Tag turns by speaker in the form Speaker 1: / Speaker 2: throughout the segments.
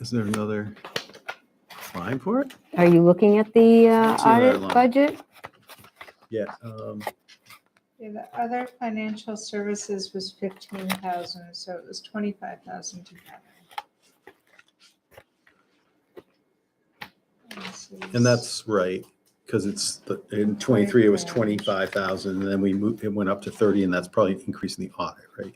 Speaker 1: Is there another line for it?
Speaker 2: Are you looking at the uh,
Speaker 1: It's in our
Speaker 2: audit
Speaker 1: line.
Speaker 2: budget?
Speaker 1: Yeah. um,
Speaker 3: Yeah, the other financial services was fifteen thousand, so it was twenty-five thousand together. This is-
Speaker 1: And that's right, because it's, the- in 23, it was 25,000, and then we moved, it went up to 30, and that's probably an increase in the audit, right?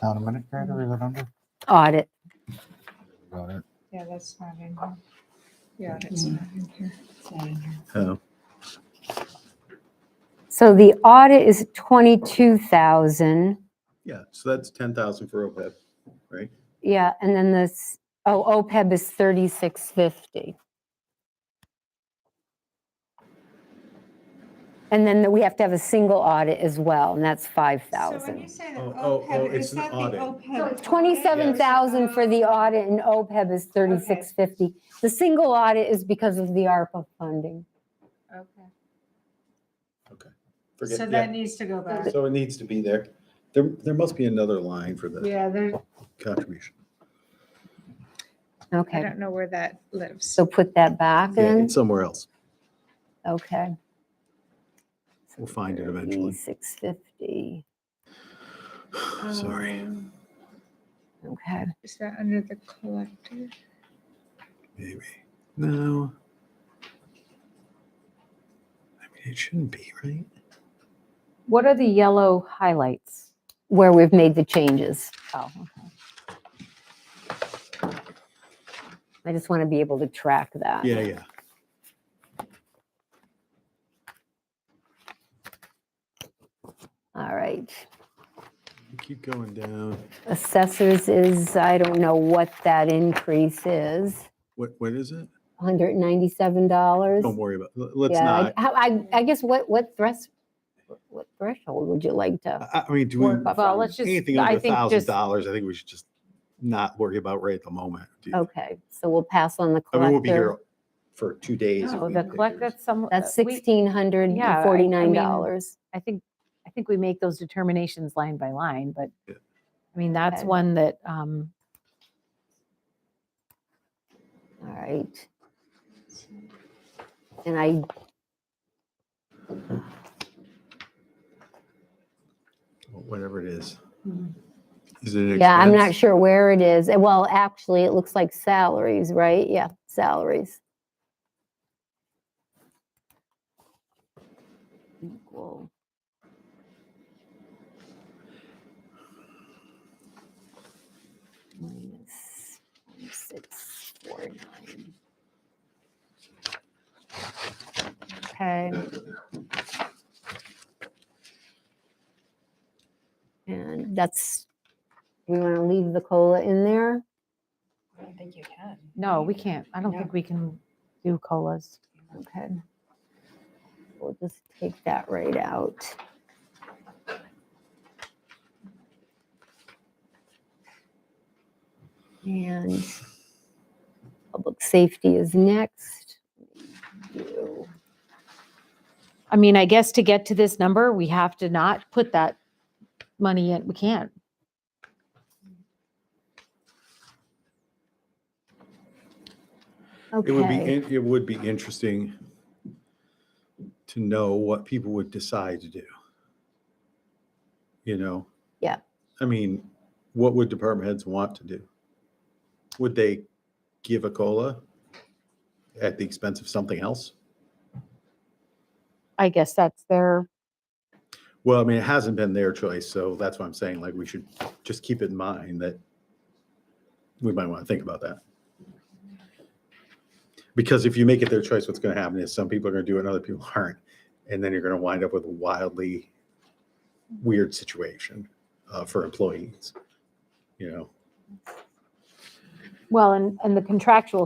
Speaker 4: Town administrator, is it under?
Speaker 2: Audit.
Speaker 4: Got it.
Speaker 3: Yeah, that's not in here. Yeah, it's not in here. It's not in here.
Speaker 1: Oh,
Speaker 2: So the audit is 22,000.
Speaker 1: Yeah, so that's 10,000 for OPEB.
Speaker 2: Yeah, and then this, oh, OPEB is 3650. And then we have to have a single audit as well, and that's
Speaker 3: So when you
Speaker 2: 5,000.
Speaker 3: say the
Speaker 1: Oh, oh, oh,
Speaker 3: OPEB,
Speaker 1: it's
Speaker 3: E is
Speaker 1: an
Speaker 3: that the E
Speaker 1: audit.
Speaker 3: OPEB?
Speaker 2: So it's 27,000 for the audit and OPEB is 3650. The single audit is because of the ARPA funding.
Speaker 3: Okay.
Speaker 1: Forget-
Speaker 3: So
Speaker 1: yeah,
Speaker 3: that needs to go back.
Speaker 1: So it needs to be there. There, there must be another line for the
Speaker 3: Yeah, there,
Speaker 1: contribution.
Speaker 3: I
Speaker 2: Okay,
Speaker 3: don't know where that lives.
Speaker 2: so put that back
Speaker 1: Yeah,
Speaker 2: in,
Speaker 1: it's somewhere else.
Speaker 2: okay.
Speaker 1: We'll find it eventually.
Speaker 2: 650,
Speaker 1: Sorry.
Speaker 3: Um,
Speaker 2: okay.
Speaker 3: Is that under the collector?
Speaker 1: Maybe. No. I mean, it shouldn't be, right?
Speaker 5: What are the yellow highlights?
Speaker 2: Where we've made the changes.
Speaker 5: Oh, okay.
Speaker 2: I just want to be able to track that.
Speaker 1: Yeah, yeah.
Speaker 2: All right.
Speaker 1: Keep going down.
Speaker 2: Assessors is, I don't know what that increase is,
Speaker 1: What, what is it? Don't
Speaker 2: $197?
Speaker 1: worry about, l- let's
Speaker 2: Yeah,
Speaker 1: not.
Speaker 2: I- how- I, I guess what, what thresh, what threshold would you like to?
Speaker 1: I, I mean, do
Speaker 2: Work
Speaker 1: we,
Speaker 2: buffer.
Speaker 5: Well, let's just,
Speaker 1: anything
Speaker 5: I
Speaker 1: over a
Speaker 5: think
Speaker 1: thousand
Speaker 5: just,
Speaker 1: dollars, I think we should just not worry about right at the moment. Do
Speaker 5: Oh,
Speaker 1: you-
Speaker 2: Okay, so we'll pass on the
Speaker 1: I mean, we'll be
Speaker 2: collector.
Speaker 1: here for two days. if we
Speaker 5: no, Oh, the
Speaker 1: pick
Speaker 5: collect,
Speaker 1: yours.
Speaker 5: that's some.
Speaker 2: That's
Speaker 5: uh, we- yeah, I- I
Speaker 2: $1,649.
Speaker 5: I think, I think we make those determinations line by line, but,
Speaker 1: Yeah.
Speaker 5: I mean, that's
Speaker 2: Okay.
Speaker 5: one that, um,
Speaker 2: All right. And I,
Speaker 1: Whatever it is.
Speaker 5: Mm-hmm.
Speaker 1: Is it? an
Speaker 2: yeah, I'm not
Speaker 1: expense?
Speaker 2: sure where it is. Eh, Well, actually, it looks like salaries, right? Yeah, salaries. Equal. Minus six, four, nine.
Speaker 5: okay,
Speaker 2: And that's, we want to leave the COLA in there?
Speaker 6: I don't think you can.
Speaker 5: no, we can't, I don't
Speaker 6: No.
Speaker 5: think we can do COLAs.
Speaker 2: Okay. We'll just take that right out. And public safety is next. Do-
Speaker 5: I mean, I guess to get to this number, we have to not put that money in, we can't.
Speaker 1: It would be,
Speaker 2: Okay,
Speaker 1: in- it would be interesting to know what people would decide to do. You know?
Speaker 2: Yeah.
Speaker 1: I mean, what would department heads want to do? Would they give a COLA at the expense of something else?
Speaker 5: I guess that's their.
Speaker 1: Well, I mean, it hasn't been their choice, so that's why I'm saying, like, we should just keep in mind that we might want to think about that. Because if you make it their choice, what's going to happen is some people are going to do it and other people aren't. And then you're going to wind up with a wildly weird situation uh, for employees, you know?
Speaker 5: Well, and, and the contractual